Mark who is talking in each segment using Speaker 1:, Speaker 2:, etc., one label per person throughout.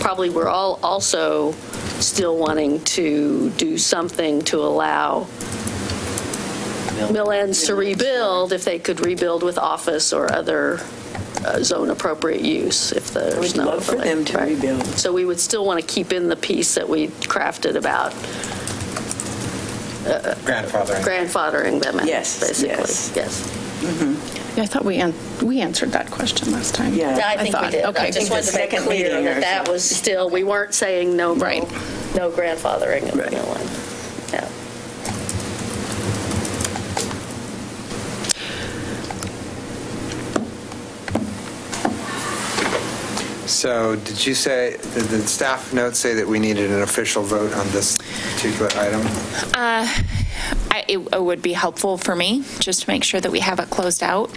Speaker 1: probably we're all also still wanting to do something to allow mill ends to rebuild if they could rebuild with office or other uh, zone-appropriate use if there's
Speaker 2: We'd
Speaker 1: no overlay.
Speaker 2: love for them to
Speaker 1: Right.
Speaker 2: rebuild.
Speaker 1: So we would still want to keep in the piece that we crafted about
Speaker 3: grandfathering.
Speaker 1: grandfathering them, in,
Speaker 2: Yes,
Speaker 1: basically.
Speaker 2: yes.
Speaker 1: Yes.
Speaker 4: Yeah, I thought we, an- we answered that question last time.
Speaker 2: Yeah.
Speaker 1: I think we
Speaker 4: thought,
Speaker 1: did. I
Speaker 4: okay.
Speaker 1: just wanted to make
Speaker 2: Second
Speaker 1: clear
Speaker 2: meeting
Speaker 1: that
Speaker 2: or
Speaker 1: that was still, we weren't saying no, no
Speaker 4: Right.
Speaker 1: no grandfathering of the mill end. Yeah.
Speaker 3: So did you say, did the staff notes say that we needed an official vote on this particular item?
Speaker 5: I- It it would be helpful for me, just to make sure that we have it closed out.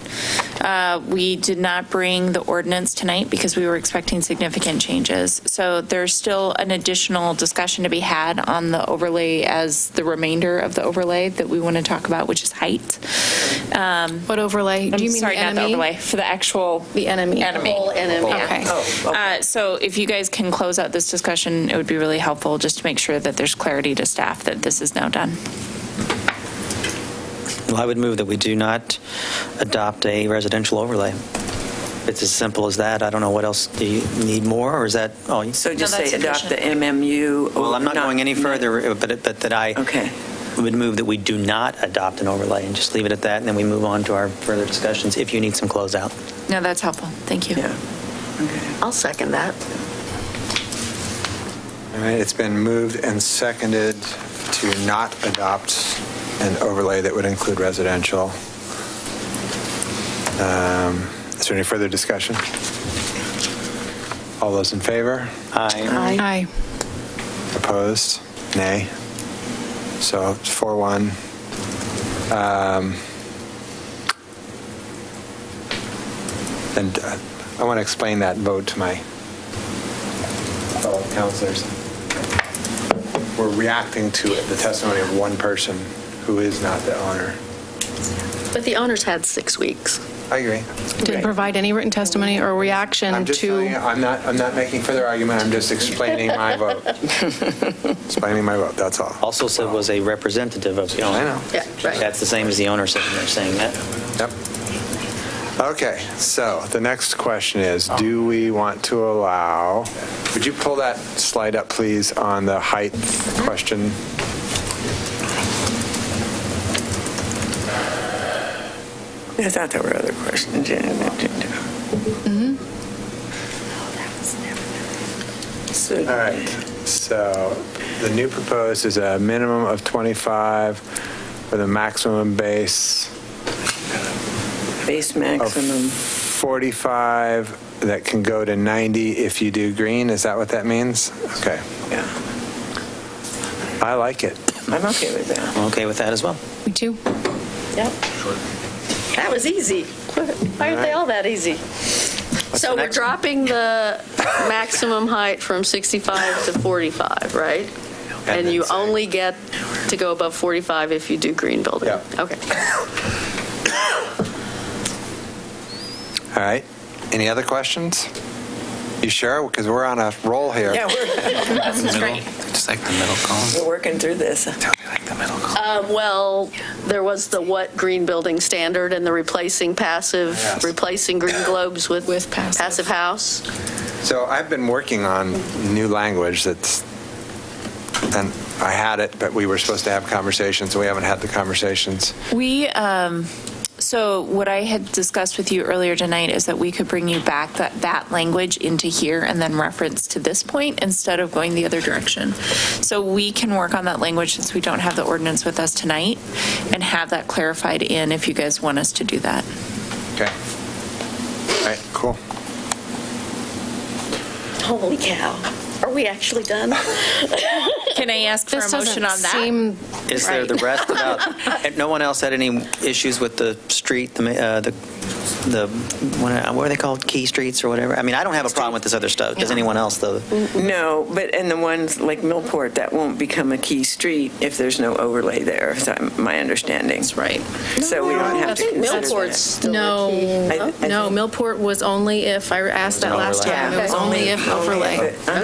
Speaker 5: Uh, We did not bring the ordinance tonight because we were expecting significant changes. So there's still an additional discussion to be had on the overlay as the remainder of the overlay that we want to talk about, which is height. Um,
Speaker 4: What overlay? Do you mean
Speaker 5: Sorry,
Speaker 4: the
Speaker 5: not the
Speaker 4: enemy?
Speaker 5: overlay, for the actual.
Speaker 4: The enemy.
Speaker 5: Enemy.
Speaker 1: Whole enemy.
Speaker 5: Yeah.
Speaker 4: Okay.
Speaker 5: Uh, So if you guys can close out this discussion, it would be really helpful, just to make sure that there's clarity to staff that this is now done.
Speaker 6: Well, I would move that we do not adopt a residential overlay. It's as simple as that. I don't know what else, do you need more, or is that all? you-
Speaker 2: So just
Speaker 5: No, that's
Speaker 2: say adopt the
Speaker 5: sufficient.
Speaker 2: MMU. or
Speaker 6: Well, I'm not going any further, but, but that I
Speaker 2: Okay.
Speaker 6: would move that we do not adopt an overlay and just leave it at that, and then we move on to our further discussions if you need some closeout.
Speaker 5: No, that's helpful. Thank you.
Speaker 2: Yeah. Okay.
Speaker 1: I'll second that.
Speaker 3: All right, it's been moved and seconded to not adopt an overlay that would include residential. Um, Is there any further discussion? All those in favor?
Speaker 6: Aye.
Speaker 4: Aye.
Speaker 3: Opposed? Nay? So it's 4-1. Um, And uh, I want to explain that vote to my fellow counselors. We're reacting to the testimony of one person who is not the owner.
Speaker 1: But the owners had six weeks.
Speaker 3: I agree.
Speaker 4: Didn't provide any written testimony or reaction
Speaker 3: I'm just telling you,
Speaker 4: to,
Speaker 3: I'm not, I'm not making further argument, I'm just explaining my vote. Explaining my vote, that's all.
Speaker 6: Also said was a representative of the owner.
Speaker 3: I know.
Speaker 1: Yeah, right.
Speaker 6: That's the same as the owner sitting there saying that.
Speaker 3: Yep. Okay, so the next question is, do we want to allow, would you pull that slide up, please, on the height question?
Speaker 2: I thought there were other questions. So
Speaker 3: All right, so the new proposed is a minimum of 25 with a maximum base
Speaker 2: base
Speaker 3: of
Speaker 2: maximum.
Speaker 3: 45 that can go to 90 if you do green, is that what that means? Okay,
Speaker 7: Oh.
Speaker 2: Yeah,
Speaker 3: I like it.
Speaker 2: I'm okay with that.
Speaker 6: I'm okay with that as well.
Speaker 4: me too.
Speaker 1: Yep. That was easy. Why aren't they all that easy? So
Speaker 6: the
Speaker 1: we're
Speaker 6: next one?
Speaker 1: dropping the maximum height from 65 to 45, right? And
Speaker 3: then
Speaker 1: you
Speaker 3: say-
Speaker 1: only get to go above 45 if you do green building?
Speaker 3: Yeah.
Speaker 1: Okay.
Speaker 3: All right, any other questions? You sure? Because we're on a roll here.
Speaker 2: Yeah, we're,
Speaker 7: Just like the middle column.
Speaker 2: we're working through this.
Speaker 7: Tell me like the middle column.
Speaker 1: Uh, Well, there was the what green building standard and the replacing passive,
Speaker 3: Yes.
Speaker 1: replacing green globes with
Speaker 4: With passive.
Speaker 1: passive house.
Speaker 3: So I've been working on new language that's, and I had it, but we were supposed to have conversations, and we haven't had the conversations.
Speaker 5: We, um, so what I had discussed with you earlier tonight is that we could bring you back that, that language into here and then reference to this point instead of going the other direction. So we can work on that language since we don't have the ordinance with us tonight and have that clarified in if you guys want us to do that.
Speaker 3: Okay. All right, cool.
Speaker 1: Holy cow. Are we actually done?
Speaker 5: Can I ask for a
Speaker 4: This
Speaker 5: motion
Speaker 4: doesn't
Speaker 5: on that?
Speaker 4: seem,
Speaker 6: Is there the rest about, and no one else had any issues with the street, the, ma- uh, the, the what are they called, key streets or whatever? I mean, I don't have a problem with this other stuff. Does anyone else, though?
Speaker 2: No, but, and the ones like Millport, that won't become a key street if there's no overlay there, is that my understanding. That's right. So we don't have to consider
Speaker 1: Millport's
Speaker 2: that.
Speaker 1: still a key.
Speaker 4: no,
Speaker 2: I- I
Speaker 4: no,
Speaker 2: think-
Speaker 4: Millport was only if, I asked that last
Speaker 6: overlay.
Speaker 4: time, it was
Speaker 2: Yeah.
Speaker 4: only if overlay.
Speaker 2: Only if it-